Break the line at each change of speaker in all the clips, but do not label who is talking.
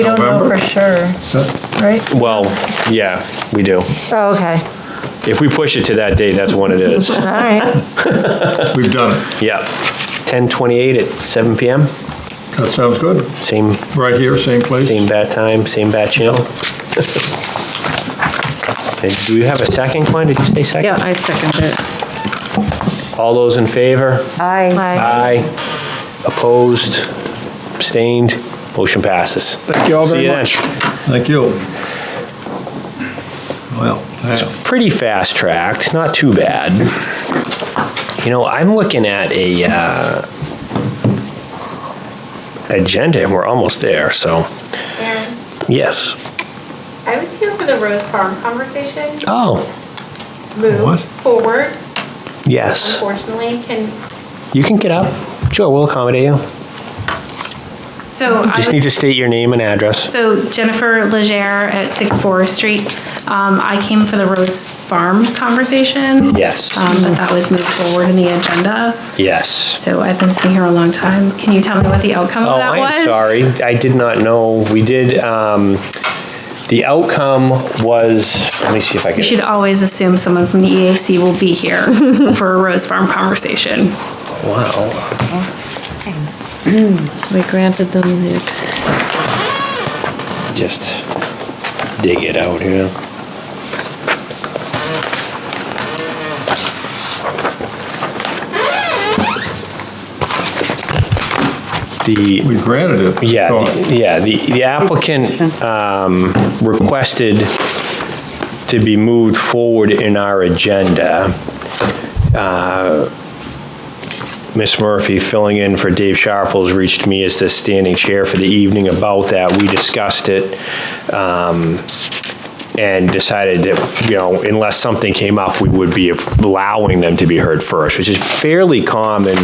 We don't know for
November?
sure, right?
Well, yeah, we do.
Oh, okay,
If we push it to that date, that's when it is.
all right.
We've done it.
Yeah. 10:28 at seven PM,
That sounds good.
same,
Right here, same place.
same bat time, same bat channel. And Do you have a second, Glenn? Did you say second?
Yeah, I second it.
All those in favor?
Aye.
Aye. Opposed? Abstained? Motion passes.
Thank you all
See
very
you then.
much. Thank you. Well, yeah.
pretty fast tracked, not too bad. You know, I'm looking at a uh, agenda, and we're almost there. So,
And
yes.
I was here for the Rose Farm conversation.
Oh,
What?
Move forward,
yes.
unfortunately, can,
You can get up. Sure, we'll accommodate you.
So I
Just
would
need to state your name and address.
So Jennifer Legere at 6 Forest Street. Um, I came for the Rose Farm conversation.
Yes.
Um, But that was moved forward in the agenda,
Yes.
so I've been sitting here a long time. Can you tell me what the outcome
Oh,
of that was?
I am sorry. I did not know. We did. Um, the outcome was. Let me see if I
You should
can.
always assume someone from the EAC will be here for a Rose Farm conversation.
Wow.
We granted them the,
Just dig it out here. The,
We granted it.
yeah,
So,
the- yeah, the the applicant um, requested to be moved forward in our agenda. Uh, Ms. Murphy, filling in for Dave Sharples, reached me as the standing chair for the evening about that. We discussed it um, and decided that, you know, unless something came up, we would be allowing them to be heard first, which is fairly common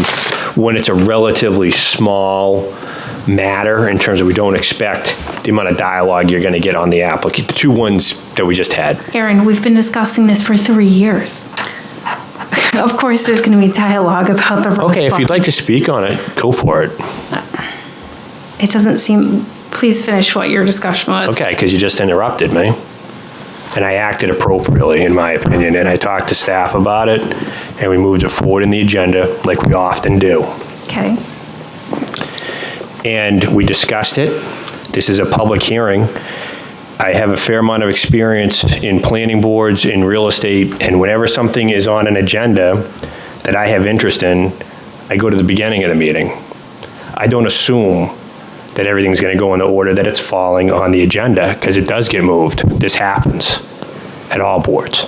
when it's a relatively small matter in terms of we don't expect the amount of dialogue you're going to get on the applicant, the two ones that we just had.
Aaron, we've been discussing this for three years. Of course, there's going to be dialogue about the Rose Farm.
Okay, if you'd like to speak on it, go for it.
It doesn't seem, please finish what your discussion was.
Okay, because you just interrupted me. And I acted appropriately, in my opinion, and I talked to staff about it, and we moved it forward in the agenda like we often do.
Okay.
And we discussed it. This is a public hearing. I have a fair amount of experience in planning boards, in real estate, and whenever something is on an agenda that I have interest in, I go to the beginning of the meeting. I don't assume that everything's going to go in the order that it's falling on the agenda, because it does get moved. This happens at all boards.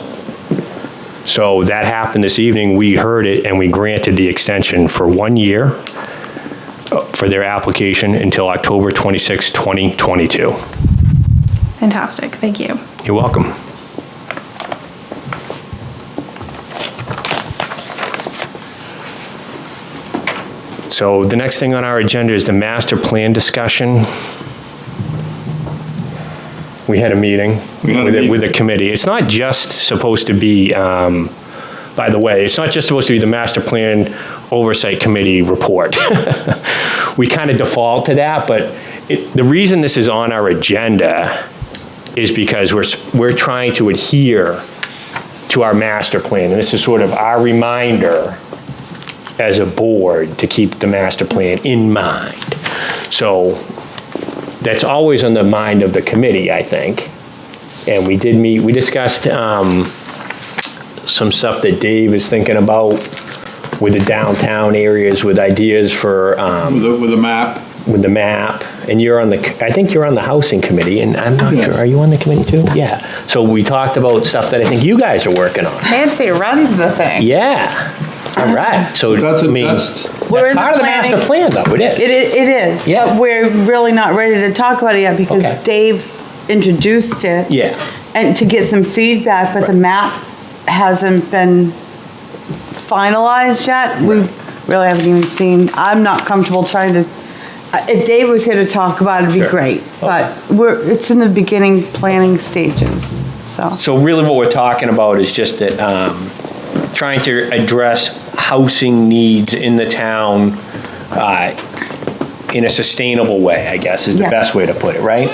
So that happened this evening. We heard it, and we granted the extension for one year uh, for their application until October 26, 2022.
Fantastic, thank you.
You're welcome. So the next thing on our agenda is the master plan discussion. We had a meeting
We had a
with a- with a
meeting.
committee. It's not just supposed to be, um, by the way, it's not just supposed to be the master plan oversight committee report. We kind of default to that, but it- the reason this is on our agenda is because we're, s- we're trying to adhere to our master plan. And this is sort of our reminder as a board to keep the master plan in mind. So that's always on the mind of the committee, I think. And we did meet, we discussed um, some stuff that Dave is thinking about with the downtown areas, with ideas for, um,
With a, with a map,
with the map, and you're on the, I think you're on the housing committee, and I'm not sure, are you on the committee too? Yeah. So we talked about stuff that I think you guys are working on.
Nancy runs the thing.
Yeah. All right, so,
that's,
I
a-
mean,
that's,
that's
We're in the
part of the master plan, though, it
It,
is.
i- it is,
Yeah.
but we're really not ready to talk about it yet because
Okay.
Dave introduced it.
Yeah.
And to get some feedback, but the map hasn't been finalized yet. We really haven't even seen, I'm not comfortable trying to, uh, if Dave was here to talk about it, it'd be
Sure.
great.
Okay.
But we're, it's in the beginning planning stages, so.
So really what we're talking about is just that, um, trying to address housing needs in the town, uh, in a sustainable way, I guess, is the
Yeah.
best way to put it, right?